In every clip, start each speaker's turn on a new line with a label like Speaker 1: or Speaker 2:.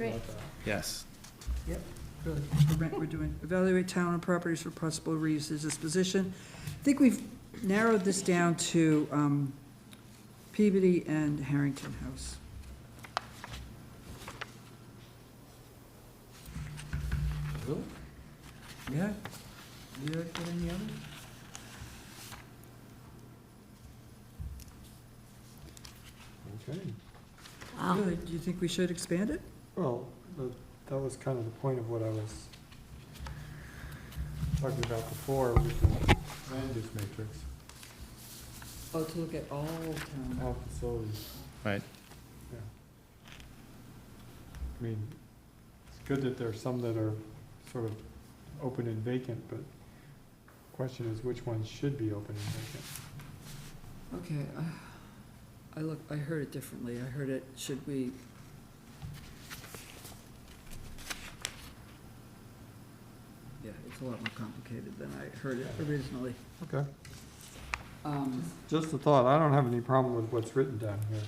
Speaker 1: Great.
Speaker 2: Yes.
Speaker 3: Good, the rent we're doing. Evaluate town and properties for possible reuse as disposition. I think we've narrowed this down to um, Peabody and Harrington House.
Speaker 4: Really? Yeah. You already put in the other?
Speaker 5: Okay,
Speaker 1: Wow.
Speaker 3: Really, Do you think we should expand it?
Speaker 5: well, the- that was kind of the point of what I was talking about before with the land use matrix,
Speaker 3: Oh, to look at all town.
Speaker 5: all facilities.
Speaker 2: Right.
Speaker 5: Yeah. I mean, it's good that there are some that are sort of open and vacant, but question is which ones should be open and vacant? Oh.
Speaker 3: Okay, I, I look, I heard it differently. I heard it, should we? Yeah, it's a lot more complicated than I heard it originally.
Speaker 5: Okay.
Speaker 3: Um,
Speaker 5: Just a thought, I don't have any problem with what's written down here,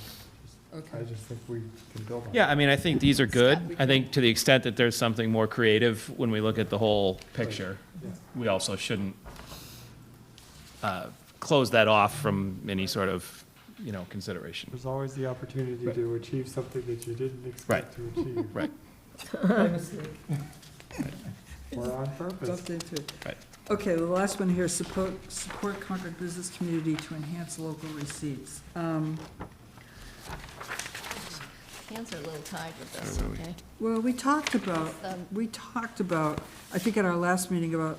Speaker 3: okay.
Speaker 5: I just think we can build on it.
Speaker 2: Yeah, I mean, I think these are good.
Speaker 1: we
Speaker 2: I think to the extent that there's something more creative when we look at the whole picture,
Speaker 5: Yeah.
Speaker 2: we also shouldn't uh, close that off from any sort of, you know, consideration.
Speaker 5: There's always the opportunity
Speaker 2: Right.
Speaker 5: to achieve something that you didn't expect to achieve.
Speaker 2: Right.
Speaker 3: By mistake.
Speaker 5: Or on purpose.
Speaker 3: Bumped into it.
Speaker 2: Right.
Speaker 3: Okay, the last one here, support, support Concord business community to enhance local receipts. Um,
Speaker 1: Hands are a little tied with this, okay?
Speaker 3: Well, we talked about,
Speaker 1: Um,
Speaker 3: we talked about, I think at our last meeting about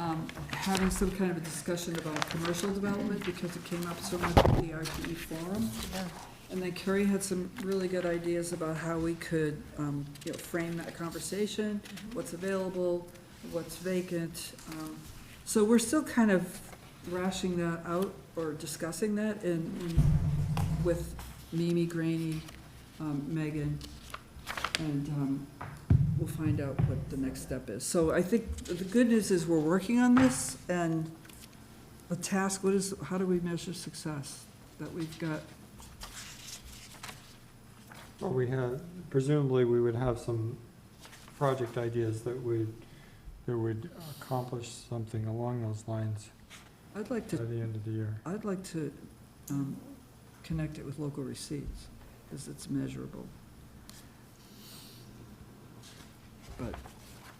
Speaker 3: um, having some kind of a discussion about commercial development because it came up so much at the RTE forum.
Speaker 1: yeah.
Speaker 3: And then Kerry had some really good ideas about how we could, um, you know, frame that conversation, what's available, what's vacant. um, So we're still kind of rashing that out or discussing that in, in- with Mimi, Granny, um, Megan, and, um, we'll find out what the next step is. So I think the good news is we're working on this and the task, what is, how do we measure success? That we've got
Speaker 5: Well, we had, presumably, we would have some project ideas that would, that would accomplish something along those lines
Speaker 3: I'd like
Speaker 5: by
Speaker 3: to,
Speaker 5: the end of the year.
Speaker 3: I'd like to um, connect it with local receipts, because it's measurable. But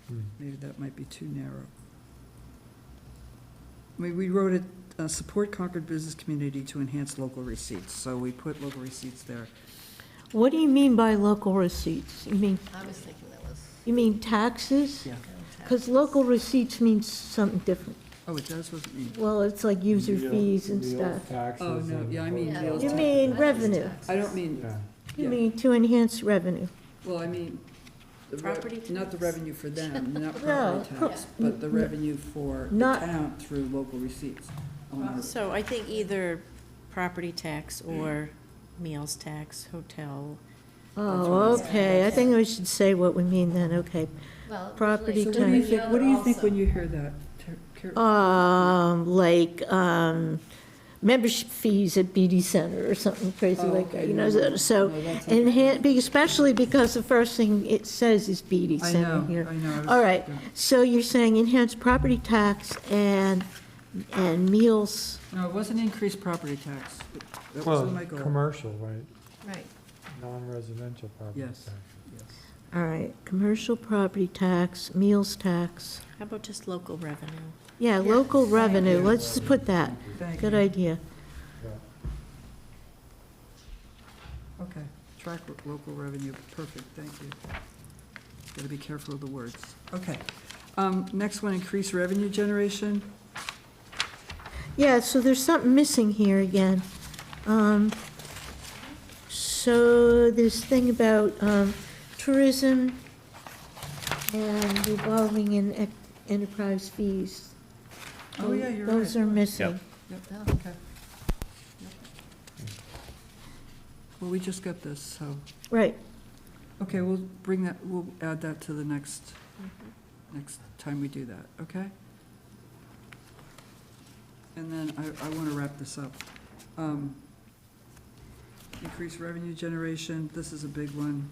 Speaker 5: Hmm.
Speaker 3: maybe that might be too narrow. I mean, we wrote it, uh, support Concord business community to enhance local receipts, so we put local receipts there.
Speaker 6: What do you mean by local receipts? You mean,
Speaker 1: I was thinking that was.
Speaker 6: you mean taxes?
Speaker 3: Yeah.
Speaker 6: Because local receipts means something different.
Speaker 3: Oh, it does, wasn't me.
Speaker 6: Well, it's like user
Speaker 5: Real-
Speaker 6: feels and
Speaker 5: real
Speaker 6: stuff.
Speaker 5: taxes
Speaker 3: Oh, no,
Speaker 5: and-
Speaker 3: yeah, I mean
Speaker 1: Yeah,
Speaker 3: real
Speaker 1: those
Speaker 6: You
Speaker 1: tax-
Speaker 3: estate.
Speaker 6: mean
Speaker 1: I those
Speaker 6: revenue.
Speaker 1: taxes.
Speaker 3: I don't mean,
Speaker 5: Yeah,
Speaker 6: You
Speaker 3: yeah.
Speaker 6: mean to enhance revenue.
Speaker 3: well, I mean, the rev-
Speaker 1: Property
Speaker 3: not the
Speaker 1: tax.
Speaker 3: revenue for them, not
Speaker 6: No,
Speaker 3: property tax,
Speaker 6: pro-
Speaker 3: but the revenue for the
Speaker 6: Not-
Speaker 3: town through local receipts. on our-
Speaker 7: So I think either property tax or meals tax, hotel.
Speaker 6: Oh, okay, I think we should say what we mean then, okay.
Speaker 1: Well,
Speaker 6: Property
Speaker 3: So
Speaker 1: really,
Speaker 3: what do you
Speaker 1: the
Speaker 3: think, what do you think
Speaker 1: other
Speaker 3: when you hear that? Ter- Car-
Speaker 6: Um, like, um, membership fees at BD Center or something crazy
Speaker 3: Oh,
Speaker 6: like
Speaker 3: okay,
Speaker 6: that, you
Speaker 3: no,
Speaker 6: know,
Speaker 3: no,
Speaker 6: so- so.
Speaker 3: no, that's okay.
Speaker 6: Enhan, be- especially because the first thing it says is BD
Speaker 3: I
Speaker 6: Center
Speaker 3: know,
Speaker 6: here.
Speaker 3: I know. I was-
Speaker 6: All right,
Speaker 3: yeah.
Speaker 6: so you're saying enhance property tax and, and meals,
Speaker 3: No, it wasn't increased property tax. That
Speaker 5: well,
Speaker 3: wasn't my goal.
Speaker 5: commercial, right,
Speaker 1: ones. Right.
Speaker 5: non-residential property
Speaker 3: Yes.
Speaker 5: tax.
Speaker 6: all right, commercial property tax, meals tax.
Speaker 7: How about just local revenue?
Speaker 6: Yeah,
Speaker 1: Yeah.
Speaker 6: local revenue, let's just put that,
Speaker 3: Thank
Speaker 6: good
Speaker 3: you.
Speaker 6: idea.
Speaker 5: Yeah.
Speaker 3: Okay, track lo- local revenue, perfect, thank you. Gotta be careful of the words. Okay. Um, Next one, increase revenue generation.
Speaker 6: Yeah, so there's something missing here again. Um, So this thing about um, tourism and revolving in ec- enterprise fees.
Speaker 3: Oh, yeah, you're
Speaker 6: Those
Speaker 3: right.
Speaker 6: are missing.
Speaker 3: Yep, okay. Well, we just got this, so,
Speaker 6: Right,
Speaker 3: okay, we'll bring that, we'll add that to the next, next time we do that, okay? And then I, I want to wrap this up. Um, Increase revenue generation, this is a big one.